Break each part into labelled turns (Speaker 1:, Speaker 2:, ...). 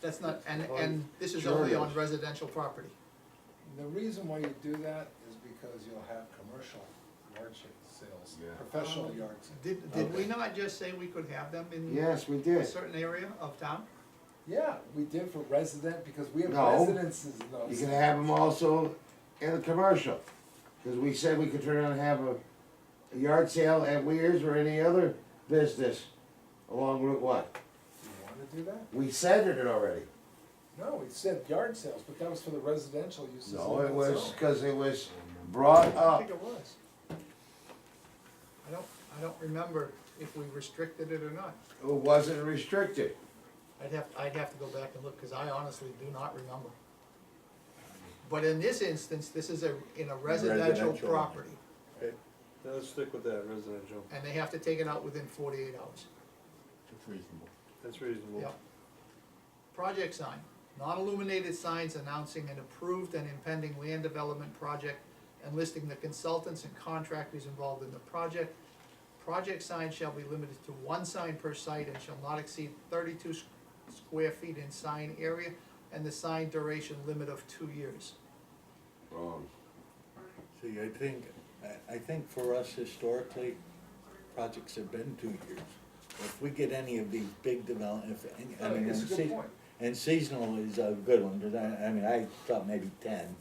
Speaker 1: That's not, and,
Speaker 2: Well,
Speaker 1: and this is
Speaker 3: sure
Speaker 1: only
Speaker 3: it
Speaker 1: on
Speaker 3: is.
Speaker 1: residential property.
Speaker 2: The reason why you do that is because you'll have commercial yard sa- sales,
Speaker 3: Yeah.
Speaker 2: professional yard sales.
Speaker 1: Did, did we
Speaker 3: Okay.
Speaker 1: not just say we could have them in
Speaker 3: Yes, we
Speaker 1: a
Speaker 3: did.
Speaker 1: certain area of town?
Speaker 2: Yeah, we did for resident, because we have
Speaker 3: No.
Speaker 2: residences in
Speaker 3: You
Speaker 2: those.
Speaker 3: can have them also in a commercial, cause we said we could turn around and have a, a yard sale at Weir's or any other business along Route One.
Speaker 2: Do you wanna do that?
Speaker 3: We said it already.
Speaker 2: No, we said yard sales, but that was for the residential uses.
Speaker 3: No,
Speaker 2: in
Speaker 3: it
Speaker 2: that
Speaker 3: was,
Speaker 2: zone.
Speaker 3: cause it was brought
Speaker 1: I think
Speaker 3: up.
Speaker 1: it was. I don't, I don't remember if we restricted it or not.
Speaker 3: It wasn't restricted.
Speaker 1: I'd have, I'd have to go back and look, cause I honestly do not remember. But in this instance, this is a, in a residential
Speaker 3: Residential.
Speaker 1: property,
Speaker 4: Now Let's stick with that residential,
Speaker 1: and they have to take it out within forty-eight hours.
Speaker 4: that's reasonable.
Speaker 1: Yep. Project sign, non-illuminated signs announcing an approved and impending land development project and listing the consultants and contractors involved in the project. Project sign shall be limited to one sign per site and shall not exceed thirty-two s- square feet in sign area and the sign duration limit of two years.
Speaker 3: Wrong.
Speaker 5: See, I think, I, I think for us historically, projects have been two years. If we get any of these big develop, if, any- I
Speaker 2: Oh,
Speaker 5: mean,
Speaker 2: it's a
Speaker 5: and
Speaker 2: good
Speaker 5: sea-
Speaker 2: point.
Speaker 5: and seasonal is a good one, cause I, I mean, I thought maybe ten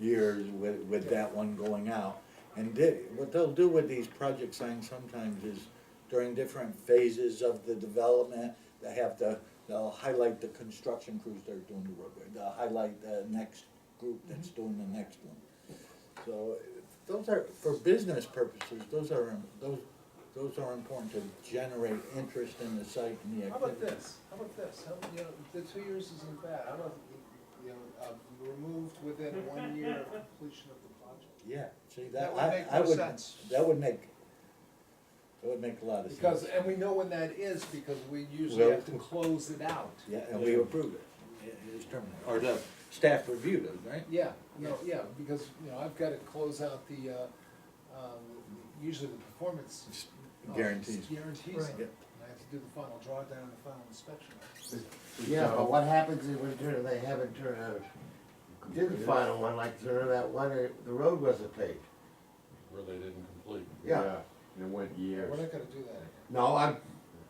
Speaker 5: years with, with that one going out. And they, what they'll do with these project signs sometimes is during different phases of the development, they have to, they'll highlight the construction crews that are doing the roadway, they'll highlight the next group that's
Speaker 2: Mm-hmm.
Speaker 5: doing the next one. So those are, for business purposes, those are, those, those are important to generate interest in the site and the
Speaker 2: How about
Speaker 5: activity.
Speaker 2: this, how about this, how, you know, the two years isn't bad, how about, you know, uh, removed within one year of completion of the project?
Speaker 5: Yeah, see,
Speaker 1: That
Speaker 5: that,
Speaker 1: would
Speaker 5: I,
Speaker 1: make
Speaker 5: I
Speaker 1: no
Speaker 5: would,
Speaker 1: sense.
Speaker 5: that would make, that would make a lot of sense.
Speaker 2: Because, and we know when that is, because we usually
Speaker 5: Well-
Speaker 2: have to close it out.
Speaker 5: Yeah, and we approved it. It it is terminated, or the staff reviewed it, right?
Speaker 2: Yeah, no, yeah, because, you know, I've gotta close out the, uh, um, usually the performance. uh,
Speaker 5: Guarantees.
Speaker 2: Guarantees,
Speaker 1: Right.
Speaker 2: of it. and I have to do the final drawdown and the final inspection.
Speaker 3: Yeah, but what happens is when turn, they haven't turned out, did the final one, like turn that one, uh, the road wasn't paved.
Speaker 6: Where they didn't complete.
Speaker 3: Yeah.
Speaker 7: And it went years.
Speaker 2: We're not gonna do that again.
Speaker 3: No, I'm,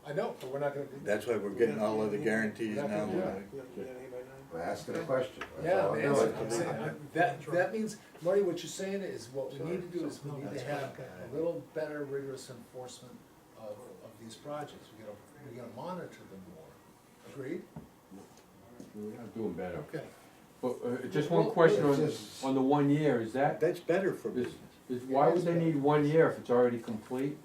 Speaker 2: I know, but we're not gonna do that.
Speaker 5: That's why we're getting all of the guarantees
Speaker 2: Yeah.
Speaker 5: now.
Speaker 3: Yeah.
Speaker 4: You got- you got any by nine?
Speaker 3: I'm asking a question. That's
Speaker 2: Yeah,
Speaker 3: all I'm
Speaker 2: man, that's
Speaker 3: doing.
Speaker 2: what I'm saying. I- that, that means, Marty, what you're saying is, what we need to do is we need to have a little better rigorous enforcement of, of these projects. We gotta, we gotta monitor them more. Agreed?
Speaker 7: We're not doing better.
Speaker 2: Okay.
Speaker 7: But, uh, just
Speaker 2: Well,
Speaker 7: one question
Speaker 3: it's
Speaker 7: on,
Speaker 3: just-
Speaker 7: on the one year, is that,
Speaker 5: That's better for
Speaker 7: is,
Speaker 5: business.
Speaker 7: is, why would they need one year if it's already complete?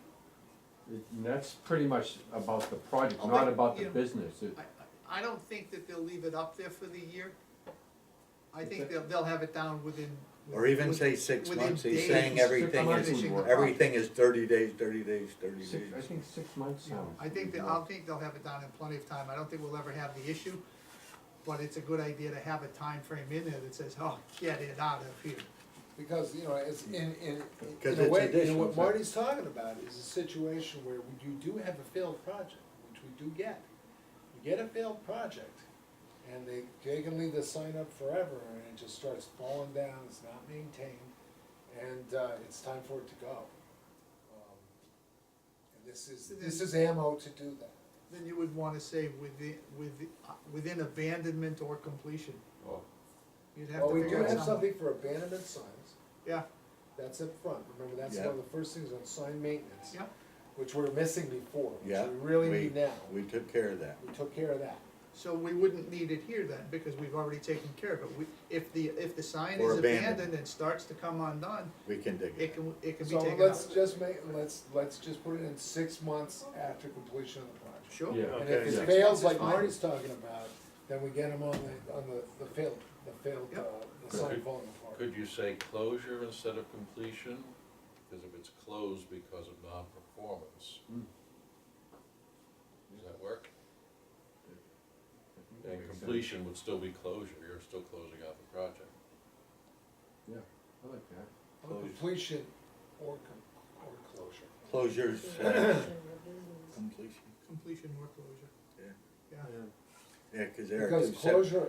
Speaker 7: It- and That's pretty much about the project,
Speaker 1: Oh,
Speaker 7: not
Speaker 1: but,
Speaker 7: about
Speaker 1: you
Speaker 7: the
Speaker 1: know,
Speaker 7: business. It-
Speaker 1: I, I I don't think that they'll leave it up there for the year. I think they'll, they'll have it down within.
Speaker 5: Or even
Speaker 1: within-
Speaker 5: say six
Speaker 1: within
Speaker 5: months, he's
Speaker 1: days
Speaker 5: saying
Speaker 1: of
Speaker 5: everything
Speaker 7: is-
Speaker 1: finishing the
Speaker 5: Everything is thirty days, thirty days, thirty
Speaker 7: Six, I
Speaker 5: days.
Speaker 7: think six months sounds.
Speaker 1: I think, that- I'll think they'll have it done in plenty of time, I don't think we'll ever have the issue, but it's a good idea to have a time frame in there that says, oh, get it out of here.
Speaker 2: Because, you know, it's in, in,
Speaker 5: Because
Speaker 2: in a
Speaker 5: it's
Speaker 2: way, you know,
Speaker 5: additional,
Speaker 2: what
Speaker 5: so-
Speaker 2: Marty's talking about is a situation where you do have a failed project, which we do get. You get a failed project, and they, they can leave the sign up forever, and it just starts falling down, it's not maintained, and, uh, it's time for it to go. Um, And this is, this is ammo to do that.
Speaker 1: Then you would wanna say within, with, within abandonment or completion.
Speaker 6: Oh.
Speaker 1: You'd have
Speaker 2: Well,
Speaker 1: to
Speaker 2: we do
Speaker 1: figure
Speaker 2: have
Speaker 1: out something.
Speaker 2: something for abandonment signs,
Speaker 1: Yeah,
Speaker 2: that's up front, remember, that's
Speaker 5: Yeah.
Speaker 2: one of the first things on sign maintenance.
Speaker 1: yeah,
Speaker 2: which we're missing before, which
Speaker 5: Yeah.
Speaker 2: we really
Speaker 5: we-
Speaker 2: need now.
Speaker 5: We took care of that.
Speaker 2: We took care of that.
Speaker 1: so we wouldn't need it here then, because we've already taken care of it, we, if the, if the sign
Speaker 5: Or
Speaker 1: is
Speaker 5: abandoned.
Speaker 1: abandoned and starts to come undone,
Speaker 5: We can dig
Speaker 1: it
Speaker 5: it.
Speaker 1: can, it can be
Speaker 2: So
Speaker 1: taken out.
Speaker 2: let's just make, let's, let's just put it in six months after completion of the project.
Speaker 1: Sure.
Speaker 7: Yeah.
Speaker 2: And
Speaker 4: Okay,
Speaker 2: if
Speaker 4: yeah.
Speaker 2: it fails,
Speaker 1: Six months is
Speaker 2: like
Speaker 1: fine.
Speaker 2: Marty's talking about, then we get them on the, on the, the failed, the failed, uh, the sign
Speaker 6: Could-
Speaker 2: falling apart.
Speaker 6: Could you say closure instead of completion? Because if it's closed because of non-performance.
Speaker 5: Hmm.
Speaker 7: Mm.
Speaker 6: Does that work?
Speaker 5: Hmm.
Speaker 6: And completion would still be closure, you're still closing out the project.
Speaker 7: Yeah, I like that.
Speaker 2: Or Completion or com- or closure.
Speaker 5: Closures, uh,
Speaker 8: Business.
Speaker 5: completion.
Speaker 1: Completion or closure.
Speaker 5: Yeah.
Speaker 1: Yeah,
Speaker 5: Yeah, cause they're.
Speaker 2: Because
Speaker 5: two separate-
Speaker 2: closure,